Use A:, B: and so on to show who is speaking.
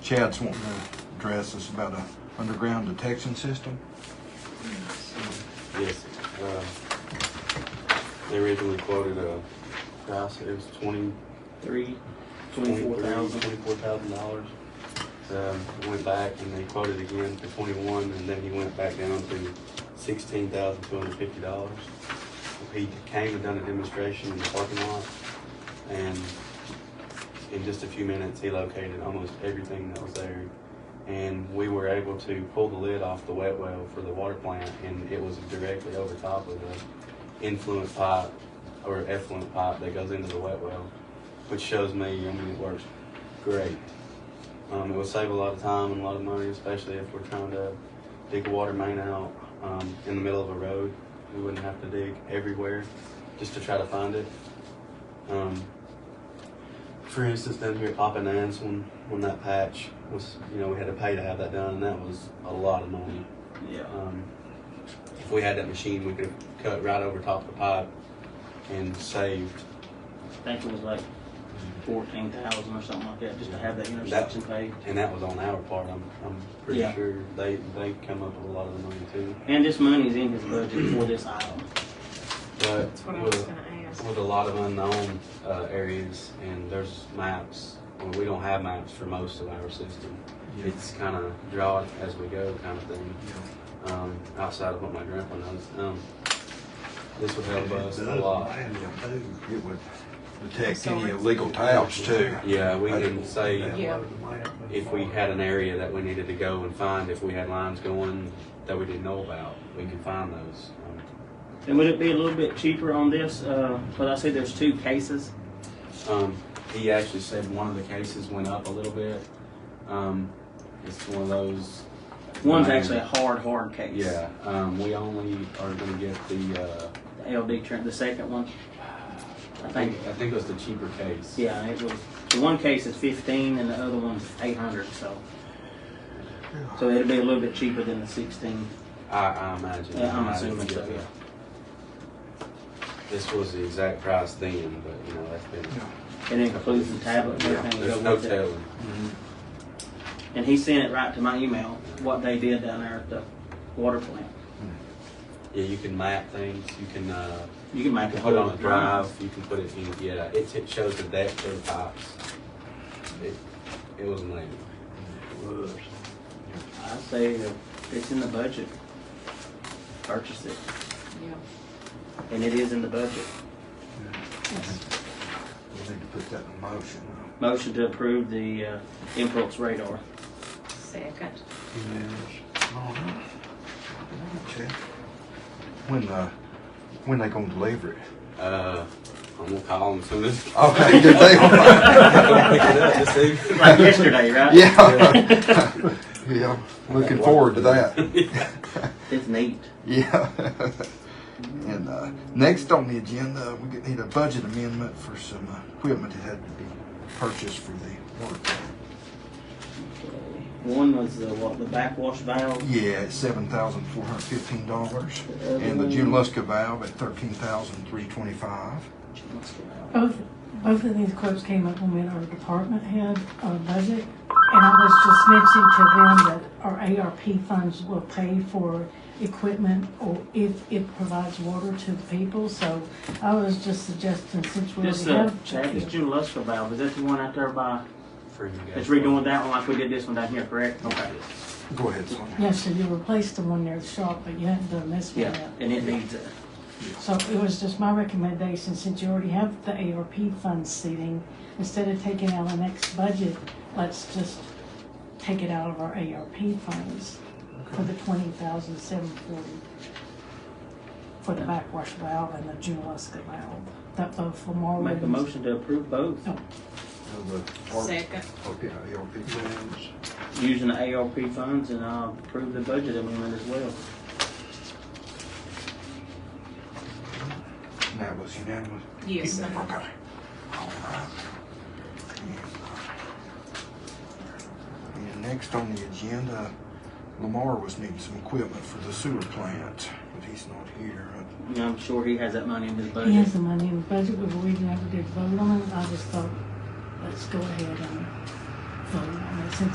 A: Chad's wanting to address us about a underground detection system.
B: Yes, uh, they originally quoted a price, it was twenty,
C: Three,
B: twenty-four
C: twenty-four thousand.
B: thousand dollars. Um, went back and they quoted again for twenty-one, and then he went back down to sixteen thousand two hundred fifty dollars. He came and done a demonstration in the parking lot, and in just a few minutes, he located almost everything that was there. And we were able to pull the lid off the wet well for the water plant, and it was directly over top of the influent pipe or effluent pipe that goes into the wet well, which shows me, I mean, it works great. Um, it will save a lot of time and a lot of money, especially if we're trying to dig a water main out um, in the middle of a road. We wouldn't have to dig everywhere just to try to find it. Um, for instance, down here at Papa Nance, when, when that patch was, you know, we had to pay to have that done, and that was a lot of money.
C: Yeah.
B: Um, if we had that machine, we could have cut right over top of the pipe and saved.
C: I think it was like fourteen thousand or something like that, just to have that intersection paved.
B: And that was on our part. I'm, I'm pretty
C: Yeah.
B: sure they they come up with a lot of the money too.
C: And this money is in his budget for this item.
B: But
D: That's what I was
B: with,
D: gonna ask.
B: with a lot of unknown uh, areas and there's maps. Well, we don't have maps for most of our system. It's kind of draw it as we go kind of thing. Um, outside of what my grandpa knows, um, this would help us a lot.
A: It would detect
D: So
A: any
D: it's-
A: illegal towns too.
B: Yeah, we can say
D: Yeah.
B: if we had an area that we needed to go and find, if we had lines going that we didn't know about, we could find those. Um,
C: And would it be a little bit cheaper on this? Uh, but I see there's two cases.
B: Um, he actually said one of the cases went up a little bit. Um, it's one of those.
C: One's
B: Um,
C: actually a hard, hard case.
B: Yeah, um, we only are gonna get the, uh,
C: The LD Trent, the second one.
B: I think, I think it was the cheaper case.
C: Yeah, it was. The one case is fifteen, and the other one's eight hundred. So. So it'll be a little bit cheaper than the sixteen.
B: I, I imagine.
C: Yeah, I'm
B: I imagine
C: assuming
B: we
C: so,
B: get that.
C: yeah.
B: This was the exact price then, but you know, that's been.
C: It includes the tablet and
B: Yeah,
C: everything.
B: There's
C: that
B: no
C: goes with it.
B: telling.
C: And he sent it right to my email, what they did down there at the water plant.
B: Yeah, you can map things, you can, uh,
C: You can
B: you
C: make
B: can
C: a
B: put it
C: whole
B: on a drive, you can put it in, yeah, it, it shows the depth of the pipes. It, it was amazing.
C: I say that it's in the budget. Purchase it.
D: Yeah.
C: And it is in the budget.
A: We need to put that in motion.
C: Motion to approve the uh, impulse radar.
D: Second.
A: When, uh, when they gonna deliver it?
B: Uh, I'm gonna call him soon as
A: Okay, good deal.
B: I'm gonna pick it up this evening.
C: Like yesterday, right?
A: Yeah. Yeah, looking forward to that.
C: It's neat.
A: Yeah. And uh, next on the agenda, we could need a budget amendment for some uh, equipment that had to be purchased for the work.
C: One was the, what, the backwash valve?
A: Yeah, it's seven thousand four hundred fifteen dollars,
C: The other
A: and the
C: one-
A: Junaluska valve at thirteen thousand three twenty-five.
E: Both, both of these quotes came up when we had our department head, uh, budget, and I was just mentioning to them that our ARP funds will pay for equipment or if it provides water to the people, so I was just suggesting since we
C: This,
E: already
C: uh,
E: have.
C: Chad, this June Luster valve, is that the one out there by,
B: For you guys.
C: it's redoing that one like we did this one down here, correct? Okay.
A: Go ahead, Sonia.
E: Yeah, so you replaced the one there at Sharp, but you hadn't done this one
C: Yeah,
E: yet.
C: and it needs it.
E: So it was just my recommendation, since you already have the ARP fund seating, instead of taking out the next budget, let's just take it out of our ARP funds for the twenty thousand seven forty for the backwash valve and the Junaluska valve, that both Lamar.
C: Make a motion to approve both,
D: Second.
A: Okay, ARP plans.
C: using the ARP funds and uh, approve the budget amendment as well.
A: And that was unanimous.
D: Yes.
A: Okay. All right. And next on the agenda, Lamar was needing some equipment for the sewer plant, but he's not here.
C: And I'm sure he has that money in his
E: He
C: budget.
E: has the money in the budget, but we never did vote on it, I just thought, let's go ahead and vote on it, since